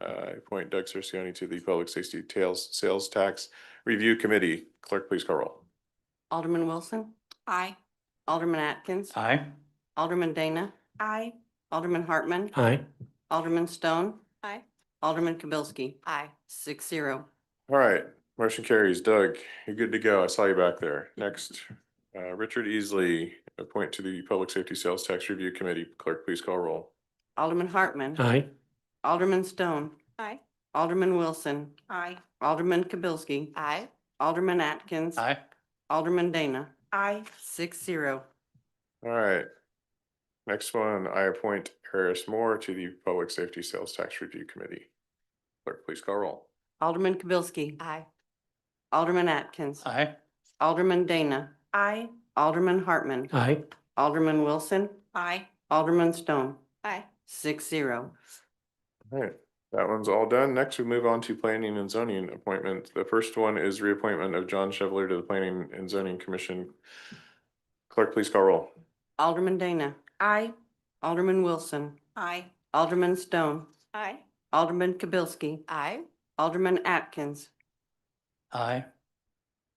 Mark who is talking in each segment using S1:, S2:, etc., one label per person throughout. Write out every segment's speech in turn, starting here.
S1: uh, appoint Doug Cerciani to the Public Safety Tales Sales Tax Review Committee. Clerk, please call roll.
S2: Alderman Wilson,
S3: Aye.
S2: Alderman Atkins,
S4: Aye.
S2: Alderman Dana,
S3: Aye.
S2: Alderman Hartman,
S4: Aye.
S2: Alderman Stone.
S3: Aye.
S2: Alderman Kibelski,
S3: Aye.
S2: six zero.
S1: All right, motion carries. Doug, you're good to go. I saw you back there. Next, uh, Richard Easley, appoint to the Public Safety Sales Tax Review Committee. Clerk, please call roll.
S2: Alderman Hartman,
S4: Aye.
S2: Alderman Stone,
S3: Aye.
S2: Alderman Wilson,
S3: Aye.
S2: Alderman Kibelski,
S3: Aye.
S2: Alderman Atkins.
S4: Aye.
S2: Alderman Dana,
S3: Aye.
S2: six zero.
S1: All right. Next one, I appoint Harris Moore to the Public Safety Sales Tax Review Committee. Clerk, please call roll.
S2: Alderman Kibelski,
S3: Aye.
S2: Alderman Atkins,
S4: Aye.
S2: Alderman Dana,
S3: Aye.
S2: Alderman Hartman,
S4: Aye.
S2: Alderman Wilson,
S3: Aye.
S2: Alderman Stone,
S3: Aye.
S2: six zero.
S1: All right, that one's all done. Next, we move on to planning and zoning appointment. The first one is reappointment of John Chevalier to the Planning and Zoning Commission. Clerk, please call roll.
S2: Alderman Dana,
S3: Aye.
S2: Alderman Wilson,
S3: Aye.
S2: Alderman Stone,
S3: Aye.
S2: Alderman Kibelski,
S3: Aye.
S2: Alderman Atkins,
S4: Aye.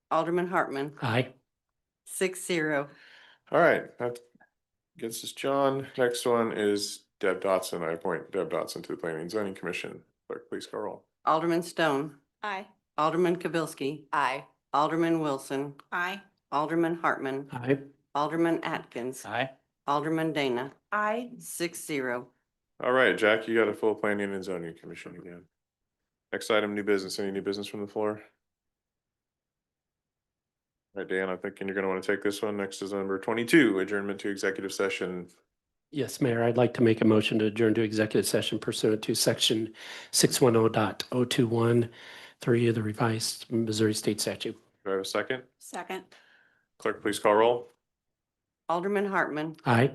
S2: Alderman Hartman,
S4: Aye.
S2: six zero.
S1: All right, that gets us John. Next one is Deb Dotson. I appoint Deb Dotson to the Planning and Zoning Commission. Clerk, please call roll.
S2: Alderman Stone,
S3: Aye.
S2: Alderman Kibelski,
S3: Aye.
S2: Alderman Wilson,
S3: Aye.
S2: Alderman Hartman,
S4: Aye.
S2: Alderman Atkins,
S4: Aye.
S2: Alderman Dana,
S3: Aye.
S2: six zero.
S1: All right, Jack, you got a full Planning and Zoning Commission again. Next item, new business. Any new business from the floor? All right, Dan, I'm thinking you're gonna want to take this one. Next is number twenty-two, adjournment to executive session.
S4: Yes, Mayor, I'd like to make a motion to adjourn to executive session pursuant to section six one oh dot oh two one three of the revised Missouri State statute.
S1: Do I have a second?
S3: Second.
S1: Clerk, please call roll.
S2: Alderman Hartman,
S4: Aye.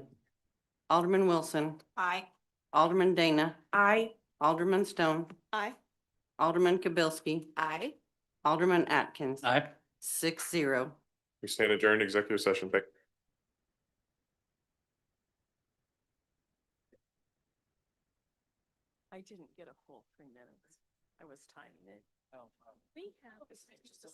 S2: Alderman Wilson,
S3: Aye.
S2: Alderman Dana,
S3: Aye.
S2: Alderman Stone,
S3: Aye.
S2: Alderman Kibelski,
S3: Aye.
S2: Alderman Atkins,
S4: Aye.
S2: six zero.
S1: We stand adjourned executive session. Thank-
S5: I didn't get a full three minutes. I was timing it. Oh. We have.